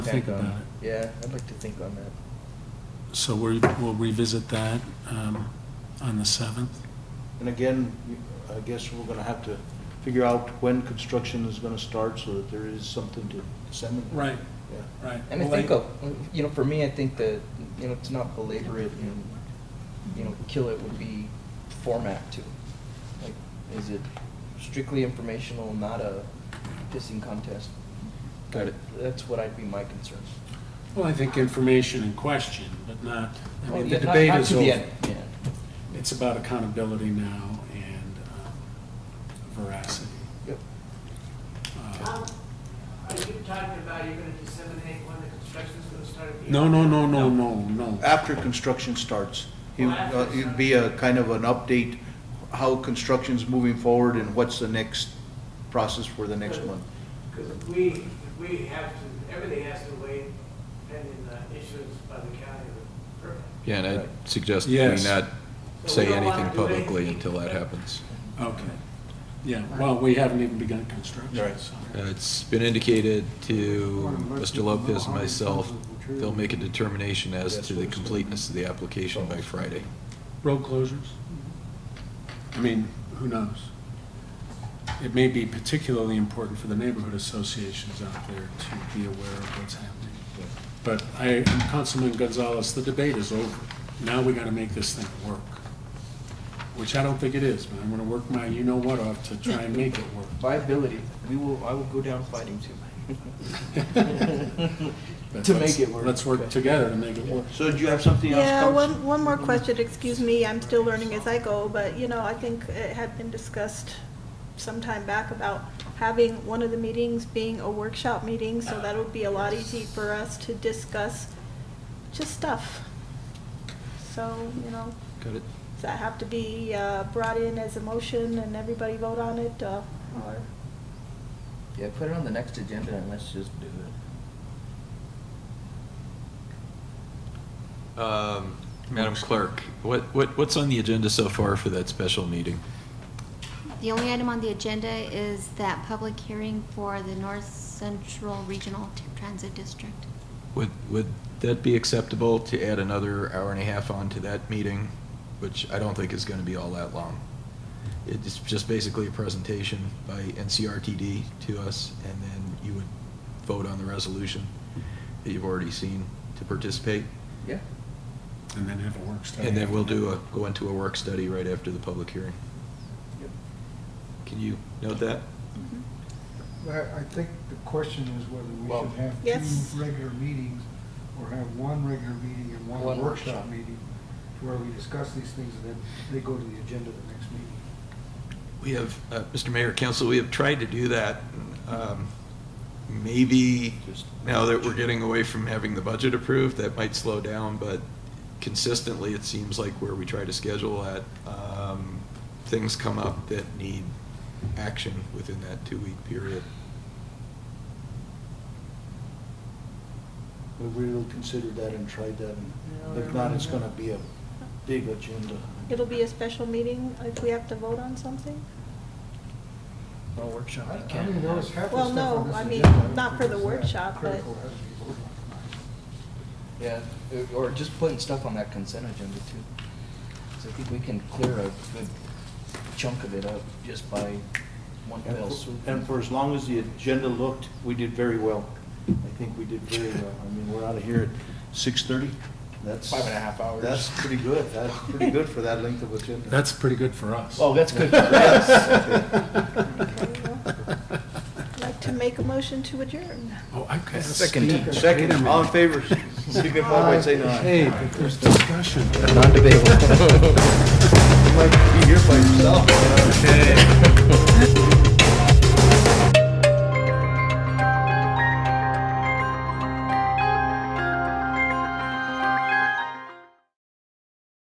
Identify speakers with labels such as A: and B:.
A: Think about it.
B: Yeah, I'd like to think on that.
A: So we, we'll revisit that um, on the 7th.
C: And again, I guess we're gonna have to figure out when construction is gonna start so that there is something to disseminate.
A: Right,
C: Yeah.
A: right.
B: And I think, uh, you know, for me, I think that, you know, to not belabor it and, you know, kill it would be format too. Like, is it strictly informational, not a pissing contest?
A: Got it.
B: That's what I'd be my concern.
A: Well, I think information in question, but not, I
B: Well,
A: mean,
B: yeah,
A: the
B: not-
A: debate
B: not
A: is
B: to the
A: over.
B: end, yeah.
A: It's about accountability now and um, veracity.
B: Yep.
A: Uh,
D: Tom, Are you talking about you're gonna disseminate when the construction's gonna start? at the
A: No,
D: end?
A: no, no, no, no, no.
C: After construction starts, it- uh, it'd be a kind of an update, how construction's moving forward and what's the next process for the next month.
D: Because if we, if we have to, everything has to wait pending the issuance by the county of the permit.
E: Yeah, and I suggest we
A: Yes.
E: not
D: So we
E: say
D: don't wanna
E: anything
D: do
E: publicly
D: anything.
E: until that happens.
A: Okay. Yeah, well, we haven't even begun construction,
C: Right.
A: so.
E: Uh, It's been indicated to Mr. Lopez and myself, they'll make a determination as to the completeness of the application by Friday.
A: Road closures? I mean, who knows? It may be particularly important for the neighborhood associations out there to be aware of what's happening. But I, Councilman Gonzalez, the debate is over. Now we gotta make this thing work, which I don't think it is, but I'm gonna work my you-know-what off to try and make it work.
B: Viability, we will, I will go down fighting too.
A: But
B: To
A: let's-
B: make it work.
A: Let's work together to make it work.
C: So do you have something else?
F: Yeah,
C: Counsel?
F: one, one more question, excuse me, I'm still learning as I go, but, you know, I think it had been discussed some time back about having one of the meetings being a workshop meeting, so that would be a lot easy for us to discuss just stuff. So, you know,
E: Got it?
F: does that have to be uh, brought in as a motion and everybody vote on it, uh, or?
B: Yeah, put it on the next agenda and let's just do it.
E: Um, Madam Clerk, what, what, what's on the agenda so far for that special meeting?
G: The only item on the agenda is that public hearing for the North Central Regional T- Transit District.
E: Would, would that be acceptable to add another hour and a half on to that meeting, which I don't think is going to be all that long? It's just basically a presentation by NCRTD to us, and then you would vote on the resolution that you've already seen to participate.
B: Yeah?
A: And then have a work study.
E: And then we'll do a, go into a work study right after the public hearing.
B: Yep.
E: Can you note that?
H: I, I think the question is whether
B: Well-
H: we should have
F: Yes.
H: two regular meetings, or have one regular meeting and
B: One
H: one
B: workshop.
H: workshop meeting, to where we discuss these things, and then they go to the agenda the next meeting.
E: We have, uh, Mr. Mayor, Council, we have tried to do that. um, Maybe now that we're getting away from having the budget approved, that might slow down, but consistently, it seems like where we try to schedule that, um, things come up that need action within that two-week period.
C: We will consider that and try that. and If not, it's gonna be a big agenda.
F: It'll be a special meeting if we have to vote on something?
B: No workshop,
H: I
B: you
H: I mean,
B: can't.
H: there's half the
F: Well,
H: stuff on
F: no,
H: this
F: I mean,
H: agenda, I don't
F: not
H: think
F: for the
H: it's that
F: workship, but-
H: critical as we vote on it.
B: Yeah, or or just putting stuff on that consent agenda too. So I think we can clear a good chunk of it up just by one
C: And
B: fell
C: for-
B: swoop.
C: And for as long as the agenda looked, we did very well. I think we did very well. I mean, we're out of here at six-thirty. That's.
B: Five and a half hours.
C: That's pretty good. That's pretty good for that length of agenda.
A: That's pretty good for us.
B: Oh, that's good. Yes.
F: Okay, well, I'd like to make a motion to adjourn.
A: Oh, I could.
E: Second.
C: Second, all in favor, signify by saying aye.
A: Hey, but there's discussion.
C: You might be here by yourself.